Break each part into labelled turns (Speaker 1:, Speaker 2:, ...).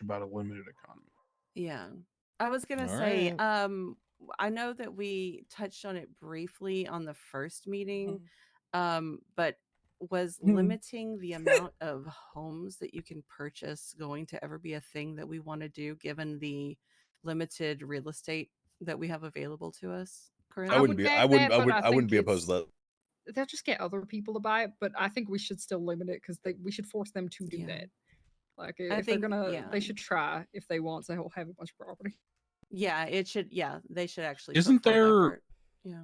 Speaker 1: about a limited economy.
Speaker 2: Yeah. I was going to
Speaker 3: All
Speaker 2: say,
Speaker 3: right.
Speaker 2: um, w- I know that we touched on it briefly on the first meeting,
Speaker 1: Mm-hmm.
Speaker 2: um, but was
Speaker 3: Mhm.
Speaker 2: limiting the amount of homes that you can purchase going to ever be a thing that we want to do given the limited real estate that we have available to us currently?
Speaker 3: I wouldn't
Speaker 4: would
Speaker 3: be. I
Speaker 4: back
Speaker 3: wouldn't.
Speaker 4: that,
Speaker 3: I
Speaker 4: but
Speaker 3: would.
Speaker 4: I
Speaker 3: I wouldn't
Speaker 4: think
Speaker 3: be opposed to that.
Speaker 4: They'll just get other people to buy it, but I think we should still limit it because we should force them to do
Speaker 2: Yeah.
Speaker 4: that. Like i- if
Speaker 2: I
Speaker 4: they're
Speaker 2: think-
Speaker 4: gonna,
Speaker 2: yeah.
Speaker 4: they should try if they want to have a bunch of property.
Speaker 2: yeah, it should. Yeah, they should actually. put
Speaker 1: Isn't
Speaker 2: forth
Speaker 1: there-
Speaker 2: effort. Yeah,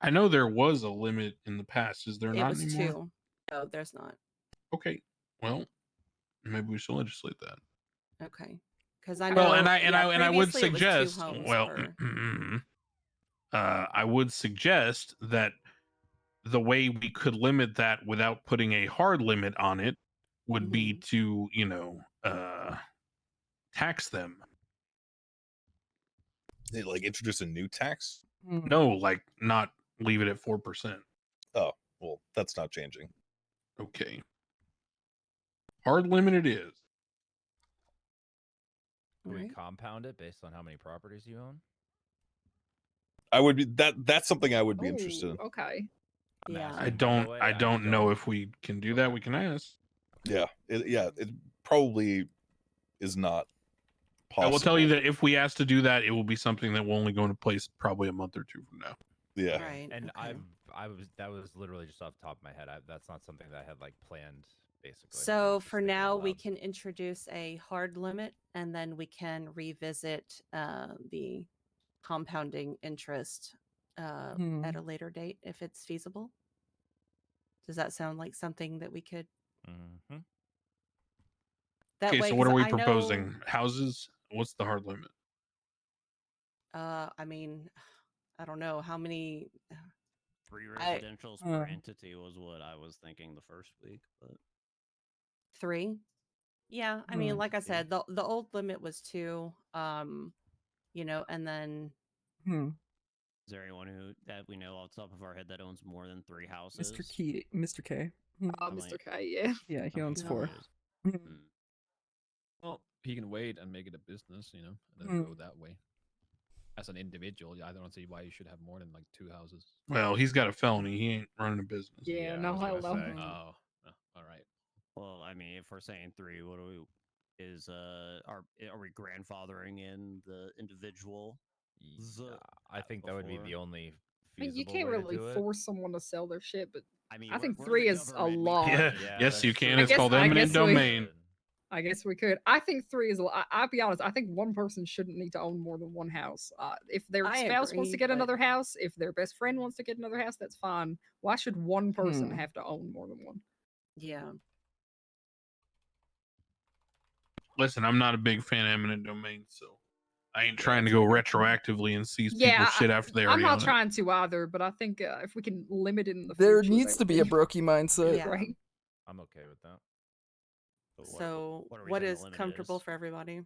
Speaker 1: I know there was a limit in the past. Is there
Speaker 2: it
Speaker 1: not
Speaker 2: was
Speaker 1: anymore?
Speaker 2: two. No, there's not.
Speaker 1: Okay. Well, maybe we should legislate that.
Speaker 2: Okay, because I know.
Speaker 1: Well, and I and
Speaker 2: yeah,
Speaker 1: I and I would
Speaker 2: previously it was two
Speaker 1: suggest
Speaker 2: homes
Speaker 1: well, mm,
Speaker 2: per-
Speaker 1: uh, I would suggest that the way we could limit that without putting a hard limit on it would
Speaker 2: Mm-hmm.
Speaker 1: be to you know uh, tax them.
Speaker 3: They, like introduce a new tax.
Speaker 1: No,
Speaker 2: Mm-hmm.
Speaker 1: like not leave it at four percent.
Speaker 3: Well, that's not changing.
Speaker 1: Okay. Hard limit it is.
Speaker 5: Do we
Speaker 2: Alright.
Speaker 5: compound it based on how many properties you own?
Speaker 3: I would be that. That's something I would be interested in.
Speaker 4: Ooh, Okay.
Speaker 5: I'm
Speaker 2: Yeah.
Speaker 1: I
Speaker 5: asking, by the
Speaker 1: don't.
Speaker 5: way,
Speaker 1: I don't know if we can do that.
Speaker 5: Okay.
Speaker 1: We can ask.
Speaker 3: Yeah. It, yeah. It probably is not. Possible.
Speaker 1: I will tell you that if we ask to do that, it will be something that will only go into place probably a month or two from now.
Speaker 3: Yeah.
Speaker 2: Right.
Speaker 5: And
Speaker 2: okay.
Speaker 5: I've, I was, that was literally just off the top of my head. I, that's not something that I had like planned, basically. I was
Speaker 2: So
Speaker 5: just
Speaker 2: for
Speaker 5: thinking out
Speaker 2: now, we
Speaker 5: loud.
Speaker 2: can introduce a hard limit, and then we can revisit uh, the compounding interest uh,
Speaker 4: Hmm.
Speaker 2: at a later date if it's feasible. Does that sound like something that we could?
Speaker 5: Mhm.
Speaker 2: That
Speaker 1: okay,
Speaker 2: way,
Speaker 1: so what
Speaker 2: 'cause
Speaker 1: are we
Speaker 2: I know-
Speaker 1: proposing? Houses? What's the hard limit?
Speaker 2: Uh, I mean, I don't know how many.
Speaker 6: Three
Speaker 2: I-
Speaker 6: residentials per
Speaker 4: Uh.
Speaker 6: entity was what I was thinking the first week, but
Speaker 2: Three. Yeah, I mean,
Speaker 4: Hmm.
Speaker 2: like I
Speaker 6: Yeah.
Speaker 2: said, the the old limit was two. Um, you know, and then
Speaker 4: Hmm.
Speaker 6: is there anyone who that we know off the top of our head that owns more than three houses?
Speaker 7: Mr. Key, Mr. K.
Speaker 4: Uh,
Speaker 6: I'm
Speaker 4: Mr.
Speaker 6: like-
Speaker 4: K, yeah.
Speaker 7: Yeah, he
Speaker 6: I mean,
Speaker 7: owns
Speaker 2: No.
Speaker 7: four.
Speaker 6: it is-
Speaker 7: Mhm.
Speaker 6: mm.
Speaker 8: Well, he can wait and make it a business, you know, and then
Speaker 7: Mm.
Speaker 8: go that way. As an individual, yeah, I don't see why you should have more than like two houses.
Speaker 1: Well, he's got a felony. He ain't running a business.
Speaker 4: Yeah,
Speaker 8: I
Speaker 4: no,
Speaker 8: was gonna
Speaker 4: hello. Mm.
Speaker 8: say, Oh, oh, all right.
Speaker 6: Well, I mean, if we're saying three, what do we? Is uh, are are we grandfathering in the individual? The-
Speaker 5: Yeah, I think that would be the
Speaker 6: before-
Speaker 5: only.
Speaker 4: I mean, you
Speaker 5: feasible
Speaker 4: can't
Speaker 5: way to
Speaker 4: really
Speaker 5: do it.
Speaker 4: force someone to sell their shit, but
Speaker 6: I mean,
Speaker 4: I
Speaker 6: we're-
Speaker 4: think
Speaker 6: we're the
Speaker 4: three is a
Speaker 6: government, we
Speaker 4: lot.
Speaker 1: Yeah,
Speaker 6: can't-
Speaker 1: yes, you
Speaker 6: that's true.
Speaker 1: can.
Speaker 4: I
Speaker 1: It's
Speaker 4: guess-
Speaker 1: called
Speaker 4: I
Speaker 1: eminent
Speaker 4: guess we-
Speaker 1: domain.
Speaker 4: I guess we could. I think three is. a lo- I, I'll be honest. I think one person shouldn't need to own more than one house. Uh, if their
Speaker 2: I
Speaker 4: spouse wants
Speaker 2: agree,
Speaker 4: to get
Speaker 2: but-
Speaker 4: another house, if their best friend wants to get another house, that's fine. Why should one person
Speaker 7: Hmm.
Speaker 4: have to own more than one?
Speaker 2: yeah,
Speaker 1: Listen, I'm not a big fan of eminent domain, so I ain't trying to go retroactively and seize
Speaker 4: Yeah,
Speaker 1: people's shit after they
Speaker 4: I'm
Speaker 1: already
Speaker 4: not
Speaker 1: own it.
Speaker 4: trying to either, but I think uh, if we can limit it in the
Speaker 7: There
Speaker 4: future,
Speaker 7: needs
Speaker 4: that would
Speaker 7: to be a brokey mindset.
Speaker 2: Yeah.
Speaker 4: right.
Speaker 5: I'm okay with that.
Speaker 6: But what-
Speaker 2: so
Speaker 6: what, are we
Speaker 2: what
Speaker 6: saying the
Speaker 2: is
Speaker 6: limit
Speaker 2: comfortable
Speaker 6: is?
Speaker 2: for everybody?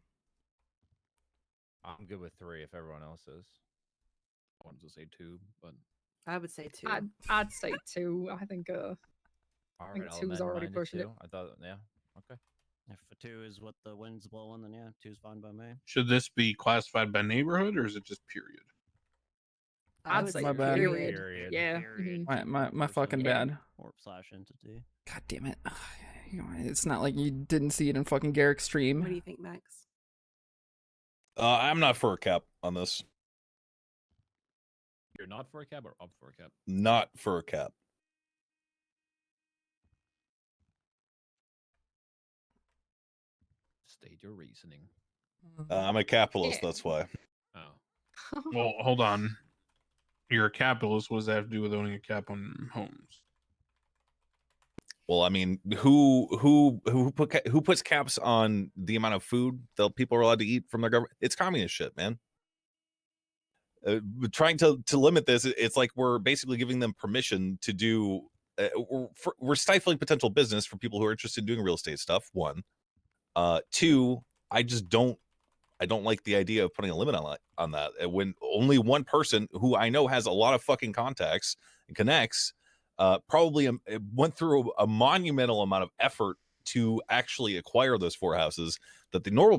Speaker 5: I'm good with three if everyone else is.
Speaker 8: I wanted to say two, but
Speaker 2: I would say two.
Speaker 4: I'd, I'd say two. I think. Uh,
Speaker 5: All
Speaker 4: think
Speaker 5: right, I'll
Speaker 4: two was
Speaker 5: amend
Speaker 4: already
Speaker 5: mine to
Speaker 4: pushing it.
Speaker 5: two. I thought, yeah, okay.
Speaker 6: If a two is what the wind's blowing, then yeah, two's fine by me.
Speaker 1: Should this be classified by neighborhood or is it just period?
Speaker 4: I'd
Speaker 2: would
Speaker 4: say
Speaker 7: My bad.
Speaker 4: period.
Speaker 5: Period.
Speaker 4: Yeah.
Speaker 6: Period.
Speaker 7: My my my
Speaker 6: Person,
Speaker 7: fucking bad.
Speaker 6: Or slash entity.
Speaker 7: God damn it. You know, It's not like you didn't see it in fucking Garrick's stream.
Speaker 2: What do you think, Max?
Speaker 3: Uh, I'm not for a cap on this.
Speaker 8: you're not for a cab or up for a cab.
Speaker 3: Not for a cap.
Speaker 8: State your reasoning.
Speaker 7: Mhm.
Speaker 3: Uh, I'm a capitalist.
Speaker 4: Yeah.
Speaker 3: That's why.
Speaker 8: Oh,
Speaker 4: mm-hmm.
Speaker 1: Well, hold on. You're a capitalist. What does that have to do with owning a cap on homes?
Speaker 3: Well, I mean, who who who put ca- who puts caps on the amount of food that people are allowed to eat from their government? It's communist shit, man. Uh, but trying to to limit this, it- it's like we're basically giving them permission to do. Uh, we're, for, we're stifling potential business for people who are interested in doing real estate stuff. One, uh, two. I just don't. I don't like the idea of putting a limit on that, on that uh, when only one person who I know has a lot of fucking contacts and connects uh, probably um, it went through a, a monumental amount of effort to actually acquire those four houses that the normal